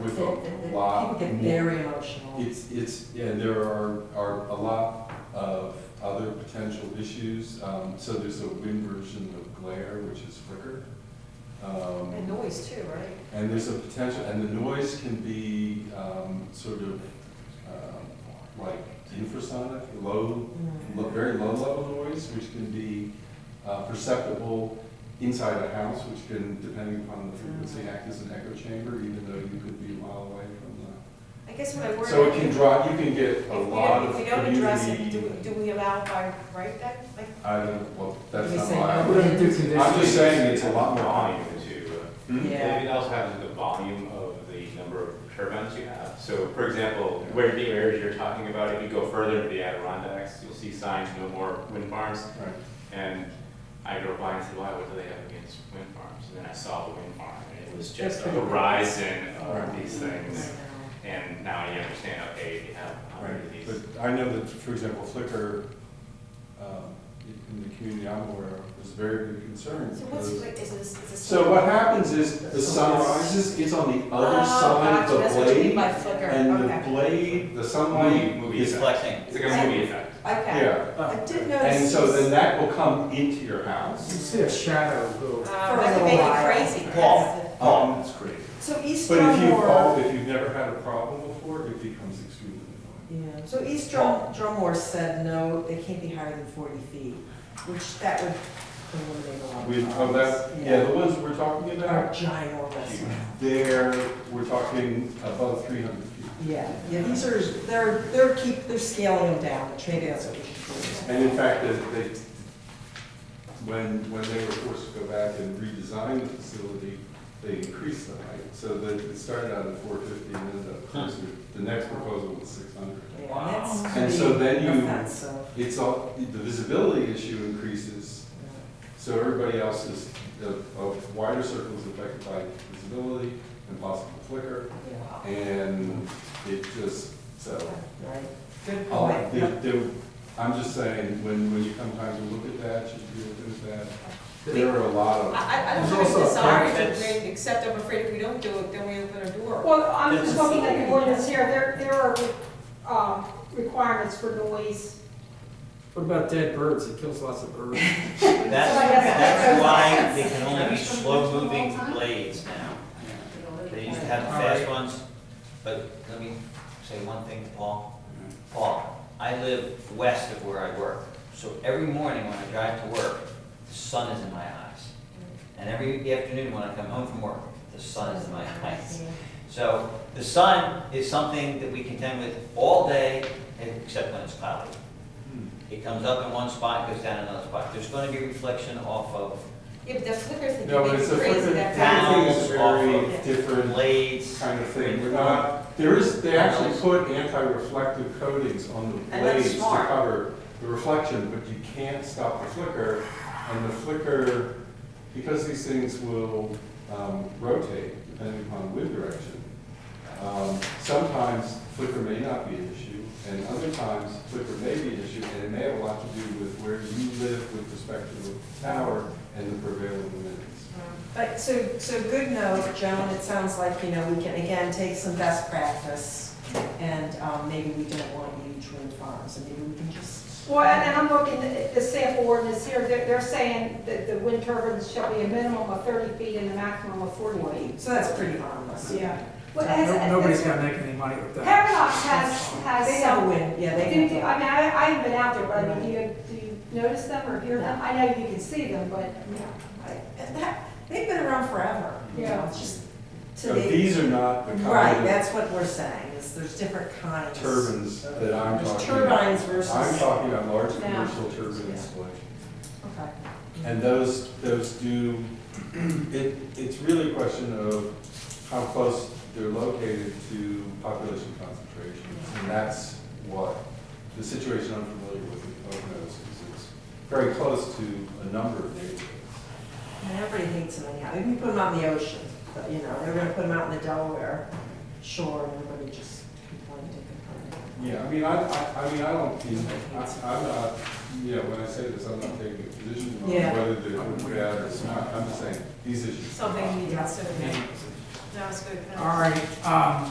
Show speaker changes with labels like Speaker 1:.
Speaker 1: with
Speaker 2: That- that-
Speaker 1: a
Speaker 2: that
Speaker 1: lot
Speaker 2: People get
Speaker 1: more.
Speaker 2: very emotional.
Speaker 1: It's, it's, and there are, are a lot of other potential issues. Um, So there's a wind version of glare, which is flicker. Um,
Speaker 3: And noise too, right?
Speaker 1: And there's a potential, and the noise can be um, sort of um, like infrasonic, low, lo- very low level noise, which can be uh, perceptible inside a house, which can, depending upon the frequency, act as an echo chamber, even though you could be a mile away from the
Speaker 3: I guess what I worry.
Speaker 1: So it
Speaker 3: about
Speaker 1: can
Speaker 3: is
Speaker 1: draw, you can get
Speaker 3: if
Speaker 1: a
Speaker 3: we don't-
Speaker 1: lot of
Speaker 3: If we don't address it, do,
Speaker 1: community.
Speaker 3: do we allow by right then? Like,
Speaker 1: I don't, well, that's
Speaker 2: We
Speaker 1: not
Speaker 2: say
Speaker 1: why.
Speaker 2: no.
Speaker 1: I
Speaker 4: We're
Speaker 1: would-
Speaker 4: gonna do conditioning.
Speaker 1: I'm just saying it's a lot more
Speaker 5: Volume too.
Speaker 1: Hmm?
Speaker 2: Yeah.
Speaker 5: It also happens with the volume of the number of turbines you have. So for example, where the areas you're talking about, if you go further into the Adirondacks, you'll see signs, no more wind farms.
Speaker 1: Right.
Speaker 5: And I drove by and said, why, what do they have against wind farms? And then I saw the wind farm, and it was just a
Speaker 2: That's pretty cool.
Speaker 5: horizon of
Speaker 1: Right.
Speaker 5: these
Speaker 2: I
Speaker 5: things.
Speaker 2: know.
Speaker 5: And now you understand, okay, you have a hundred of
Speaker 1: Right,
Speaker 5: these.
Speaker 1: but I know that, for example, Flickr, um, in- in the community I'm aware of, is very big concern.
Speaker 3: so what's,
Speaker 1: because-
Speaker 3: like, is this, is this?
Speaker 1: So what happens is the sunrise is, is on the other side
Speaker 3: Oh,
Speaker 1: of
Speaker 3: gotcha, that's
Speaker 1: the
Speaker 3: what you mean
Speaker 1: blade,
Speaker 3: by flicker,
Speaker 1: and the
Speaker 3: okay.
Speaker 1: blade, the
Speaker 5: Movie,
Speaker 1: sunlight
Speaker 5: movie
Speaker 1: is.
Speaker 5: effect.
Speaker 4: flexing.
Speaker 5: It's like a movie effect.
Speaker 3: Okay.
Speaker 1: Yeah,
Speaker 3: I did notice.
Speaker 1: and so then
Speaker 3: this-
Speaker 1: that will come into your
Speaker 4: You
Speaker 1: house.
Speaker 4: see a shadow go.
Speaker 3: Uh,
Speaker 2: For a
Speaker 3: that could
Speaker 2: little
Speaker 3: make me
Speaker 2: while.
Speaker 3: crazy.
Speaker 4: Paul.
Speaker 3: That's
Speaker 1: Um, that's great.
Speaker 3: the- So East
Speaker 1: But if you've, all-
Speaker 3: Drummoore,
Speaker 1: if you've never had a problem before, it becomes extremely annoying.
Speaker 2: Yeah, so East Drum, Drummore said, no, they can't be higher than forty feet, which that would eliminate a lot
Speaker 1: We,
Speaker 2: of
Speaker 1: oh, that,
Speaker 2: problems.
Speaker 1: yeah, the ones we're talking
Speaker 2: Are
Speaker 1: about,
Speaker 2: ginormous.
Speaker 1: there, we're talking above three hundred feet.
Speaker 2: Yeah, yeah, these are, they're, they're keep, they're scaling them down, which maybe that's what we should do.
Speaker 1: And in fact, as they, when, when they were forced to go back and redesign the facility, they increased the height. So that it started out at four fifty and ended up closer, the next proposal was six hundred.
Speaker 2: Yeah, that's
Speaker 1: And
Speaker 2: pretty
Speaker 1: so then you-
Speaker 2: offensive.
Speaker 1: It's all, the visibility issue increases, so everybody else is, the a wider circle is affected by visibility and possible flicker,
Speaker 2: Yeah,
Speaker 1: and it just, so.
Speaker 2: yeah, Right, good
Speaker 1: I'll-
Speaker 2: point.
Speaker 1: there- there- I'm just saying, when, when you come time to look at that, you do look at that, there are a lot
Speaker 3: I,
Speaker 1: of.
Speaker 3: I I don't
Speaker 4: There's
Speaker 3: have a
Speaker 4: also a
Speaker 3: desire to
Speaker 4: fence.
Speaker 3: create, except I'm afraid if we don't do it, then we open a door.
Speaker 6: Well, I'm
Speaker 4: That's
Speaker 6: just
Speaker 4: the
Speaker 6: looking at
Speaker 4: same.
Speaker 6: the ordinance here, there, there are, um, requirements for noise.
Speaker 4: What about dead birds? It kills lots of birds.
Speaker 7: That's,
Speaker 6: So I guess
Speaker 7: that's
Speaker 6: that's-
Speaker 7: why they can only be slow-moving blades now. They used to have the fast ones, but let me say one thing, Paul. Paul, I live west of where I work, so every morning when I drive to work, the sun is in my eyes. And every afternoon when I come home from work, the sun is in my eyes. So the sun is something that we contend with all day, except when it's cloudy. It comes up in one spot, goes down in another spot. There's gonna be reflection off of
Speaker 3: Yeah, but the flicker thing,
Speaker 1: No,
Speaker 3: it
Speaker 1: but
Speaker 3: makes
Speaker 1: it's a,
Speaker 3: me crazy, that
Speaker 1: that
Speaker 3: fast.
Speaker 1: thing is a very
Speaker 3: Yeah.
Speaker 1: different
Speaker 7: blades.
Speaker 1: kind of thing, we're not, there is, they actually put anti-reflective coatings on the
Speaker 7: that's
Speaker 1: blades to
Speaker 7: smart.
Speaker 1: cover the reflection, but you can't stop the flicker, and the flicker, because these things will, um, rotate depending upon wind direction, Um, Sometimes flicker may not be an issue, and other times flicker may be an issue, and it may have a lot to do with where you live with respect to the tower and the prevailing winds.
Speaker 2: But so, so good note, Joan, it sounds like, you know, we can again take some best practice and um, maybe we don't want huge wind farms and maybe we can just.
Speaker 6: Well, and and I'm looking at the sample ordinance here, they're, they're saying that the wind turbines shall be a minimum of thirty feet and a maximum of forty feet.
Speaker 2: So that's pretty harmless.
Speaker 6: Yeah. Well, has-
Speaker 4: No- Nobody's gonna make any money with that.
Speaker 6: Paradox has, has
Speaker 2: They have a
Speaker 6: some,
Speaker 2: wind, yeah,
Speaker 6: do
Speaker 2: they
Speaker 6: you-
Speaker 2: have.
Speaker 6: I mean, I, I haven't been out there, but I mean, do you, do you notice them or hear them? I know you can see them, but,
Speaker 2: And that, they've been around forever. you know,
Speaker 6: Yeah.
Speaker 2: It's just
Speaker 1: So
Speaker 2: today.
Speaker 1: these are not the
Speaker 2: Right,
Speaker 1: kind
Speaker 2: that's what we're saying, is there's different
Speaker 1: of
Speaker 2: kinds.
Speaker 1: turbines that I'm
Speaker 2: There's
Speaker 1: talking about.
Speaker 2: turbines
Speaker 1: I'm
Speaker 2: versus.
Speaker 1: talking about large
Speaker 6: Yeah.
Speaker 1: commercial turbines, like,
Speaker 2: Okay.
Speaker 1: and those, those do, it, it's really a question of how close they're located to population concentrations. And that's what, the situation I'm familiar with in Poconos is it's very close to a number of neighborhoods.
Speaker 2: And everybody hates them anyhow. Even put them out in the ocean, but you know, they're gonna put them out in the Delaware shore and everybody just complained and complained.
Speaker 1: Yeah, I mean, I, I, I mean, I don't, you know, I, I'm not, you know, when I say this, I'm not taking a position on
Speaker 2: Yeah.
Speaker 1: whether they're bad or not. I'm just saying, these issues.
Speaker 3: Something we need to consider. No, it's good. No.
Speaker 4: All right, um,